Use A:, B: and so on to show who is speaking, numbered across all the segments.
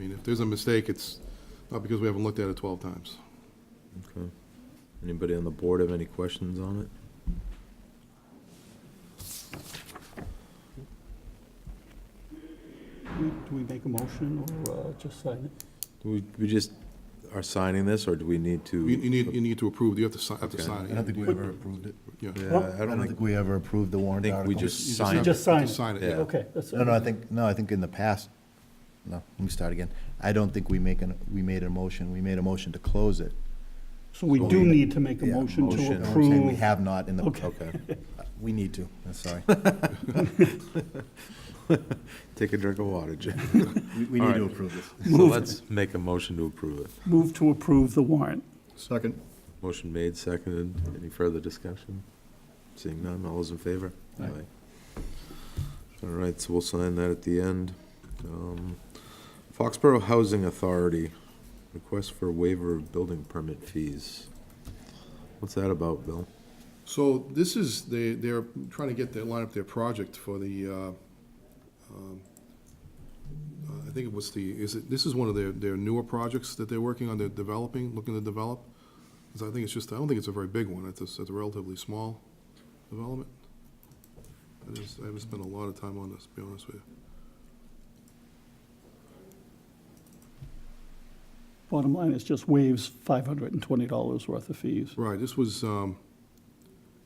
A: if there's a mistake, it's not because we haven't looked at it 12 times.
B: Okay. Anybody on the board have any questions on it?
C: Do we make a motion or uh, just sign it?
B: Do we, we just are signing this, or do we need to?
A: You you need, you need to approve, you have to sign, have to
B: Okay.
A: sign it.
D: I don't think we ever approved it.
A: Yeah. You
B: Yeah, I
D: I
B: don't
D: don't
B: think,
D: think we ever approved the
B: I
D: warrant
B: think
D: article.
B: we just
A: have
B: sign.
A: to-
B: it.
C: just sign
A: to
C: it.
A: Sign it,
B: Yeah.
A: yeah.
C: Okay, that's.
D: No, no, I think, no, I think in the past, no, let me start again. I don't think we make an, we made a motion, we made a motion to close it.
C: So we do need to make a motion
B: motion.
C: to
B: I'm
D: You know what I'm saying? We
C: approve.
D: have not in the,
C: Okay.
B: Okay.
D: we need to, I'm sorry.
B: Take a drink of water, Jim.
D: We, we need to approve this.
B: So let's make a motion to approve it.
C: Move to approve the warrant.
D: Second.
B: Motion made, seconded. Any further discussion? Seeing none, all those in favor?
D: Aye.
B: All right, so we'll sign that at the end. Um, Foxborough Housing Authority, request for waiver of building permit fees. What's that about, Bill?
A: So this is, they, they're trying to get their, line up their project for the, uh, um, uh, I think it was the, is it, this is one of their, their newer projects that they're working on, they're developing, looking to develop. 'Cause I think it's just, I don't think it's a very big one, it's a, it's a relatively small development. I just, I haven't spent a lot of time on this, to be honest with you.
C: Bottom line is just waives $520 worth of fees.
A: Right, this was, um,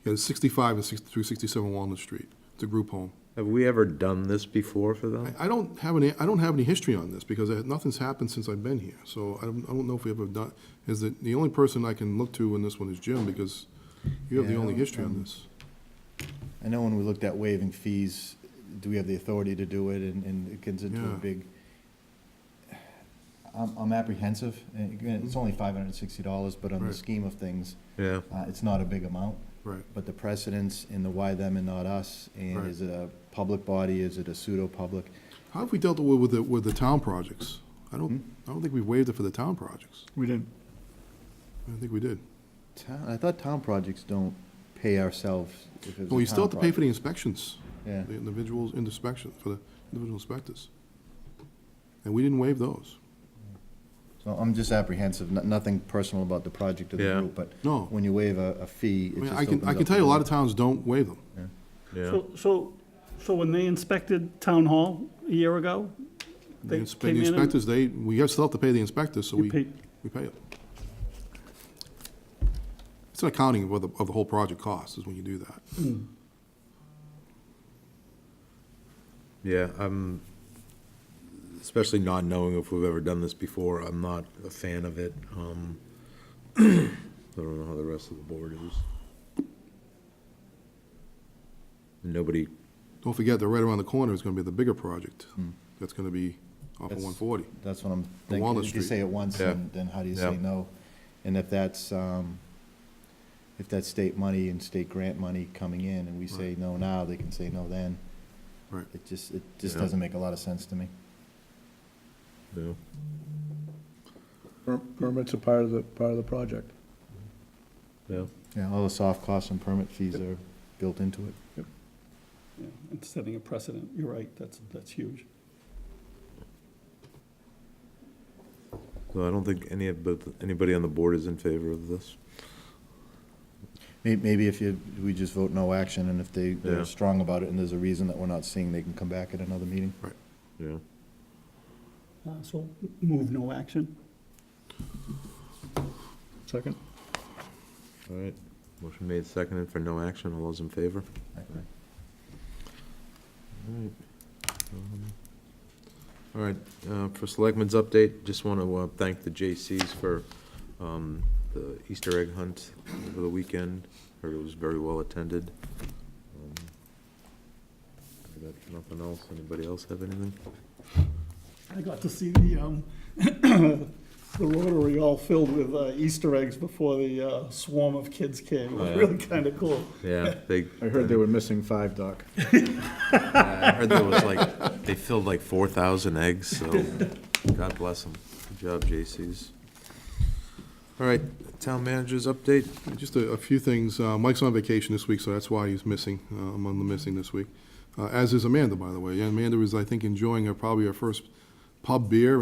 A: yeah, it's sixty-five and six, through sixty-seven Walnut Street, it's a group home.
B: Have we ever done this before for them?
A: I, I don't have any, I don't have any history on this, because I- nothing's happened since I've been here, so I don't, I don't know if we ever done, is that, the only person I can look to in this one is Jim, because you have the
D: Yeah, I
A: only
D: don't-
A: history on
D: um,
A: this.
D: I know when we looked at waiving fees, do we have the authority to do it, and, and it gets into
A: Yeah.
D: a big, I'm, I'm apprehensive, and again, it's only five hundred and sixty dollars, but on the
A: Right.
D: scheme of things,
B: Yeah,
D: uh, it's not a big amount.
A: Right,
D: But the precedence in the why them and not us, and
A: Right.
D: is it a public body, is it a pseudo-public?
A: how have we dealt with, with the, with the town projects? I don't,
D: Hmm?
A: I don't think we waived it for the town projects,
C: We didn't.
A: I don't think we did.
D: Town, I thought town projects don't pay ourselves if it's a
A: Well, you still have
D: town
A: to pay for the
D: project.
A: inspections.
D: Yeah.
A: The individuals, inspection, for the individual inspectors. And we didn't waive those.
D: So I'm just apprehensive, no- nothing personal about the project or the
B: Yeah.
D: group, but
A: No.
D: when you waive a, a fee,
A: I
D: it
A: mean,
D: just
A: I can,
D: opens
A: I can
D: up
A: tell you, a lot
D: another-
A: of towns don't waive them.
B: yeah.
C: So, so, so when they inspected Town Hall a year ago,
A: The
C: they
A: inspe-
C: came
A: the
C: in and
A: inspectors, they, we have- still have to pay the inspectors, so
C: You
A: we,
C: pay-
A: we pay it. It's an accounting of what the, of the whole project costs, is when you do that.
B: Yeah, I'm, especially not knowing if we've ever done this before, I'm not a fan of it. Um, I don't know how the rest of the board is. Nobody,
A: Don't forget, that right around the corner is gonna be the bigger project. That's gonna be off of
D: Hmm. That's-
A: one forty.
D: That's what I'm
A: Walnut
D: thinking, if you
A: Street.
D: say it once,
B: Yeah.
D: then, then how do you
B: Yeah.
D: say no? And if that's, um, if that's state money and state grant money coming in, and we say no now, they can say no then.
A: Right.
D: It just, it just
B: Yeah.
D: doesn't make a lot of sense to me.
B: no.
E: Per- Permits are part of the, part of the project.
B: Yeah.
D: Yeah, all the soft costs and permit fees are built into it.
C: Yeah, and setting a precedent, you're right, that's, that's huge.
B: So I don't think any, of the- anybody on the board is in favor of this.
D: May- Maybe if you, we just vote no action, and if they,
B: Yeah.
D: they're strong about it, and there's a reason that we're not seeing, they can come back at another meeting.
B: Yeah.
C: Uh, So move no action.
E: Second?
B: All right. Motion made, seconded for no action. All those in favor? Alright. Um, All right, uh, for Selectmen's update, just want to thank the J.C.'s for um, the Easter egg hunt over the weekend. Heard it was very well attended. Um, I got Nothing else? Anybody else have anything?
C: I got to see the, um, the Rotary all filled with uh, Easter eggs before the uh, swarm of kids came. It
B: Oh,
C: was
B: yeah.
C: really kind of cool.
B: Yeah, they.
E: I heard they were missing five, Doc.
B: I heard there was like, they filled like 4,000 eggs, so God bless them. Good job, J.C.'s. All right, town manager's update?
A: Just a, a few things. Uh, Mike's on vacation this week, so that's why he's missing, uh, among the missing this week. Uh, as is Amanda, by the way. Amanda is, I think, enjoying her, probably her first pub beer